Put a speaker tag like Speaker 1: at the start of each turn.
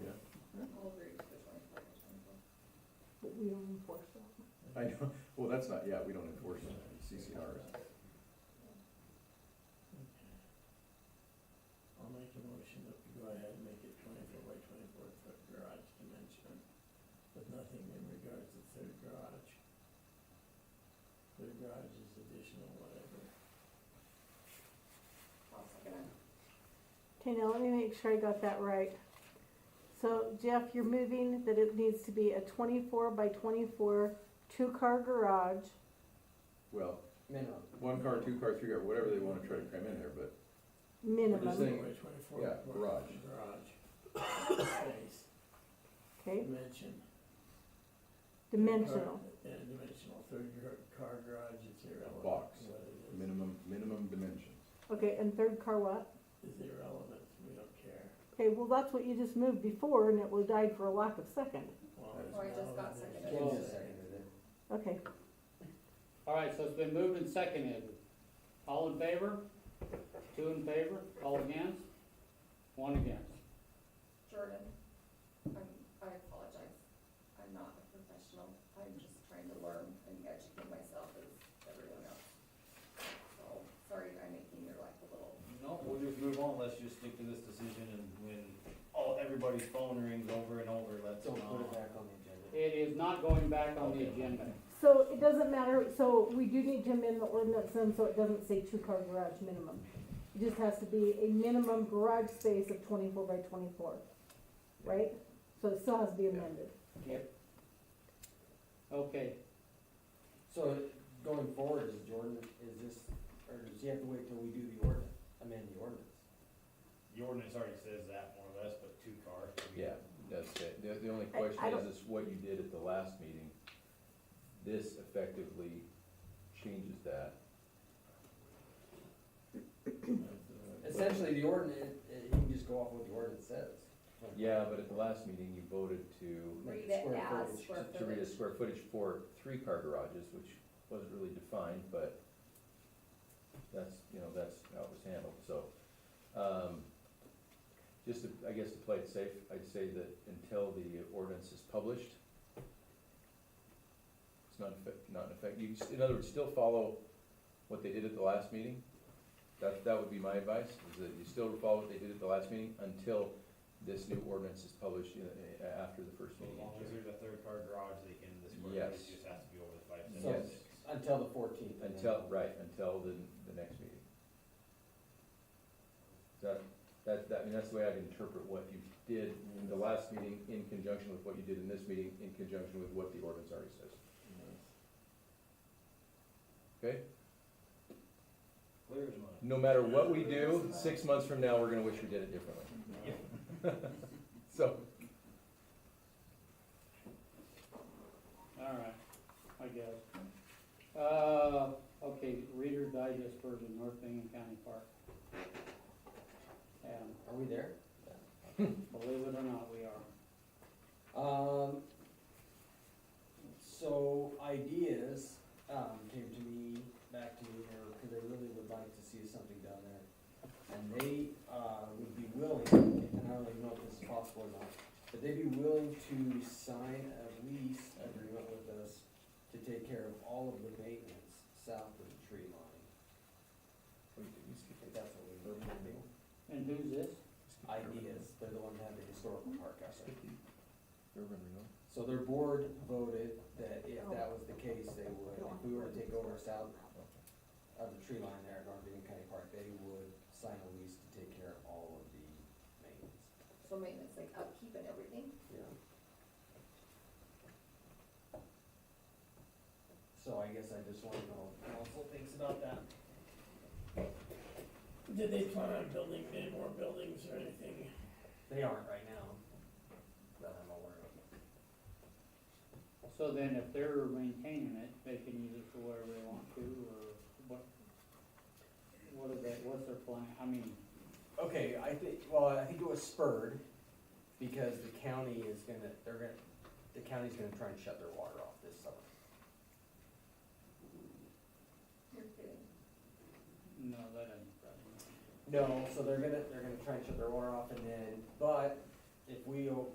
Speaker 1: we don't enforce that.
Speaker 2: I know, well, that's not, yeah, we don't enforce CCRs.
Speaker 3: I'll make a motion that we go ahead and make it twenty-four by twenty-four foot garage dimension, but nothing in regards to third garage. Third garage is additional whatever.
Speaker 1: Okay, now let me make sure I got that right. So Jeff, you're moving that it needs to be a twenty-four by twenty-four, two-car garage.
Speaker 2: Well,
Speaker 4: minimum.
Speaker 2: one car, two car, three car, whatever they wanna try to cram in there, but We're just
Speaker 1: Minimum,
Speaker 2: saying-
Speaker 3: 24 by 24
Speaker 2: yeah,
Speaker 3: foot
Speaker 2: garage.
Speaker 3: Garage. Space,
Speaker 1: okay,
Speaker 3: dimension.
Speaker 1: dimensional.
Speaker 3: Yeah, dimensional, third gar- car garage is irrelevant.
Speaker 2: Box.
Speaker 3: What it is,
Speaker 2: minimum, minimum dimensions.
Speaker 1: Okay, and third car what?
Speaker 3: is irrelevant, we don't care.
Speaker 1: Okay, well, that's what you just moved before and it was died for a lack of second.
Speaker 3: Well,
Speaker 2: Or
Speaker 3: it's
Speaker 5: it just got
Speaker 3: relevant,
Speaker 5: seconded.
Speaker 3: it's
Speaker 4: Well,
Speaker 3: just-
Speaker 1: Okay,
Speaker 4: All right, so it's been moved and seconded. All in favor? Two in favor? All against? One against.
Speaker 5: Jordan, I'm, I apologize. I'm not a professional. I'm just trying to learn and educate myself as everyone else. So, sorry I'm making your life a little,
Speaker 6: No, we'll just move on, let's just stick to this decision and when all, everybody's phone rings over and over, let's,
Speaker 4: Don't put
Speaker 6: uh,
Speaker 4: back on the agenda. It is not going back on the agenda.
Speaker 1: so it doesn't matter, so we do need to amend the ordinance then, so it doesn't say two-car garage minimum. It just has to be a minimum garage space of twenty-four by twenty-four, right? So it still has to be amended.
Speaker 4: Okay,
Speaker 7: So going forward, is Jordan, is this, or does he have to wait till we do the ordinance, amend the ordinance?
Speaker 6: the ordinance already says that more or less, but two cars.
Speaker 2: Yeah, that's it. The, the only
Speaker 1: I- I
Speaker 2: question
Speaker 1: don't-
Speaker 2: is, is what you did at the last meeting. This effectively changes that.
Speaker 3: It's
Speaker 7: Essentially, the ordinance, he can just go off what the ordinance says.
Speaker 2: Yeah, but at the last meeting, you voted to,
Speaker 7: Like
Speaker 5: read it
Speaker 7: square
Speaker 5: as
Speaker 7: footage,
Speaker 5: square
Speaker 2: to- to read a
Speaker 5: footage.
Speaker 2: square footage for three-car garages, which wasn't really defined, but that's, you know, that's how it was handled, so. um, Just to, I guess to play it safe, I'd say that until the ordinance is published, it's not effect, not in effect, you, can s- in other words, still follow what they did at the last meeting. That, that would be my advice, is that you still follow what they did at the last meeting until this new ordinance is published, you know, a- a- after the first
Speaker 6: So as
Speaker 2: meeting. in
Speaker 6: long as
Speaker 2: June.
Speaker 6: there's a third car garage, they can, the square
Speaker 2: Yes.
Speaker 6: footage just has to be over the five
Speaker 2: Yes.
Speaker 6: seventy-six.
Speaker 7: Until the fourteenth.
Speaker 2: Until, right, until the, the next meeting. So that, that, I mean, that's the way I'd interpret what you did in the last meeting in conjunction with what you did in this meeting, in conjunction with what the ordinance already says. Okay?
Speaker 6: Clear as mud.
Speaker 2: No matter what we do, six months from now, we're gonna wish we did it differently.
Speaker 6: Yeah.
Speaker 2: So,
Speaker 4: all right, I guess. Uh, okay, Reader Digest version, North Bingham County Park. And
Speaker 7: Are we there?
Speaker 4: believe it or not, we are.
Speaker 7: Um, so ideas, um, came to me, back to me, or, cause they really would like to see something done there. And they, uh, would be willing, and I don't even know if this is possible or not, but they'd be willing to sign a lease agreement with us to take care of all of the maintenance south of the tree line, if that's what we need to do.
Speaker 4: And who's this?
Speaker 7: Ideas, they're the one that had the historical park out there.
Speaker 2: Urban renewal.
Speaker 7: So their board voted that if that was the case, they would, if we were to take over south of the tree line there at North Bingham County Park, they would sign a lease to take care of all of the maintenance.
Speaker 5: So maintenance, like upkeep and everything.
Speaker 7: Yeah. So I guess I just wanna know what council thinks about that.
Speaker 3: Did they plan on building any more buildings or anything?
Speaker 7: They aren't right now, that I'm aware of.
Speaker 4: So then if they're maintaining it, they can use it for whatever they want to, or what? What is that, what's their plan, I mean,
Speaker 7: Okay, I think, well, I think it was spurred because the county is gonna, they're gonna, the county's gonna try and shut their water off this summer.
Speaker 5: You're kidding.
Speaker 4: no, that doesn't.
Speaker 7: No, so they're gonna, they're gonna try and shut their water off and then, but if we o-